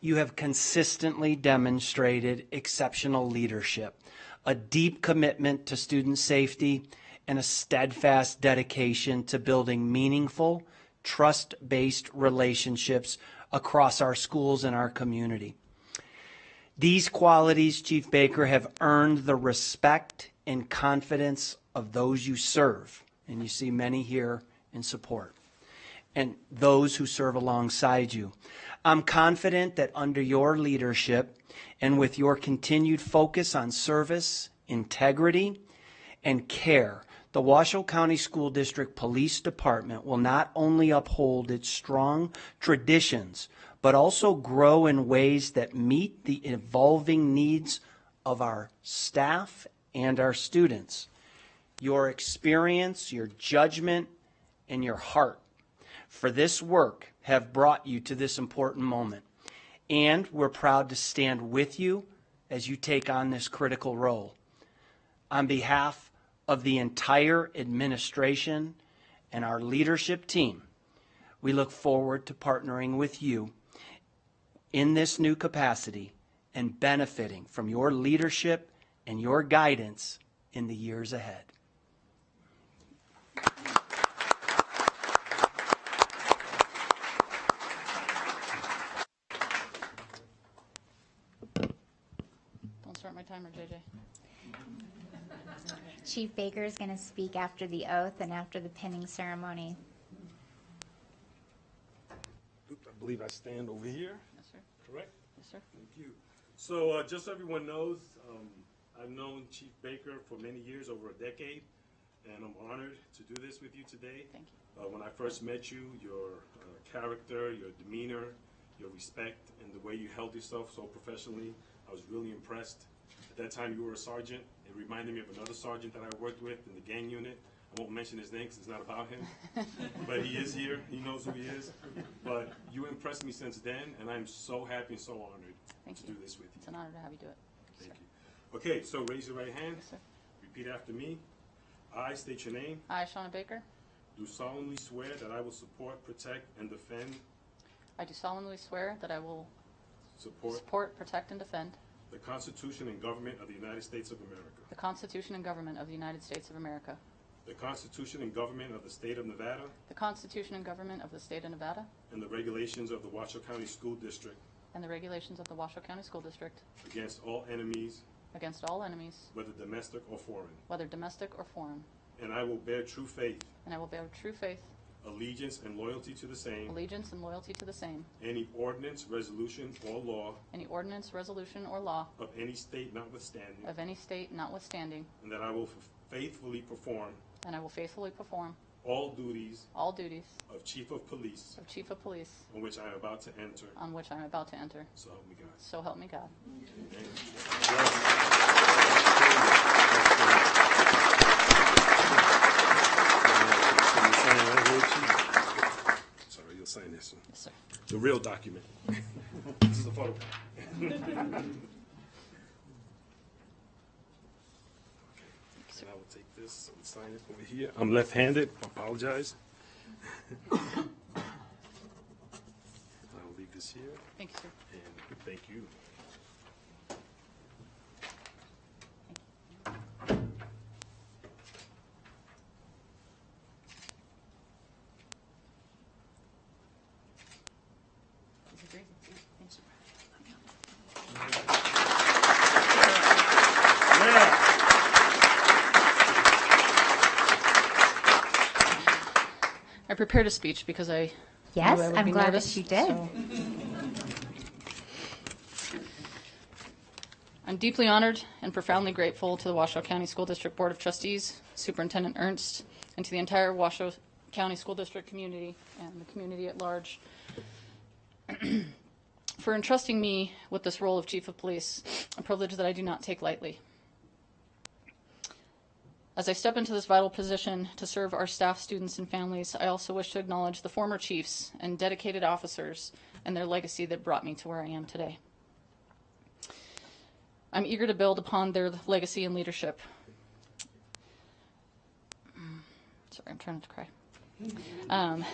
You have consistently demonstrated exceptional leadership, a deep commitment to student safety, and a steadfast dedication to building meaningful, trust-based relationships across our schools and our community. These qualities, Chief Baker, have earned the respect and confidence of those you serve, and you see many here in support, and those who serve alongside you. I'm confident that under your leadership and with your continued focus on service, integrity, and care, the Washoe County School District Police Department will not only uphold its strong traditions, but also grow in ways that meet the evolving needs of our staff and our students. Your experience, your judgment, and your heart for this work have brought you to this important moment, and we're proud to stand with you as you take on this critical role. On behalf of the entire administration and our leadership team, we look forward to partnering with you in this new capacity and benefiting from your leadership and your guidance in the years ahead. Don't start my timer, JJ. Chief Baker is going to speak after the oath and after the pinning ceremony. I believe I stand over here, Yes, sir. correct? Yes, sir. Thank you. So uh, just so everyone knows, um, I've known Chief Baker for many years, over a decade, and I'm honored to do this with you today. Thank you. Uh, When I first met you, your uh, character, your demeanor, your respect, and the way you held yourself so professionally, I was really impressed. At that time, you were a sergeant. It reminded me of another sergeant that I worked with in the gang unit. I won't mention his name because it's not about him. but he is here. He knows who he is. But you impressed me since then, and I'm so happy and so honored Thank to you. do this with you. It's an honor to have you do it. Thank you. Okay, so raise your right hand. Yes, sir. Repeat after me. I state your name. I, Shauna Baker, Do solemnly swear that I will support, protect, and defend. I do solemnly swear that I will Support support, protect, and defend the Constitution and government of the United States of America. the Constitution and government of the United States of America, The Constitution and government of the state of Nevada the Constitution and government of the state of Nevada, and the regulations of the Washoe County School District and the regulations of the Washoe County School District against all enemies, against all enemies, whether domestic or foreign. whether domestic or foreign, And I will bear true faith, and I will bear true faith, allegiance, and loyalty to the same, allegiance, and loyalty to the same, any ordinance, resolution, or law any ordinance, resolution, or law of any state notwithstanding, of any state notwithstanding, and that I will faithfully perform and I will faithfully perform all duties all duties of Chief of Police of Chief of Police on which I am about to enter. on which I am about to enter. So help me God. So help me God. Sorry, you'll sign this one. Yes, sir. The real document. This is a photo. And I will take this and sign it over here. I'm left-handed, I apologize. I will leave this here, Thank you, sir. and thank you. Thank you. I prepared a speech because I. knew Yes, I would I'm be glad nervous, that you did. so- I'm deeply honored and profoundly grateful to the Washoe County School District Board of Trustees, Superintendent Ernst, and to the entire Washoe County School District community and the community at large for entrusting me with this role of Chief of Police, a privilege that I do not take lightly. As I step into this vital position to serve our staff, students, and families, I also wish to acknowledge the former chiefs and dedicated officers and their legacy that brought me to where I am today. I'm eager to build upon their legacy and leadership. Mm. Sorry, I'm trying not to cry. Um,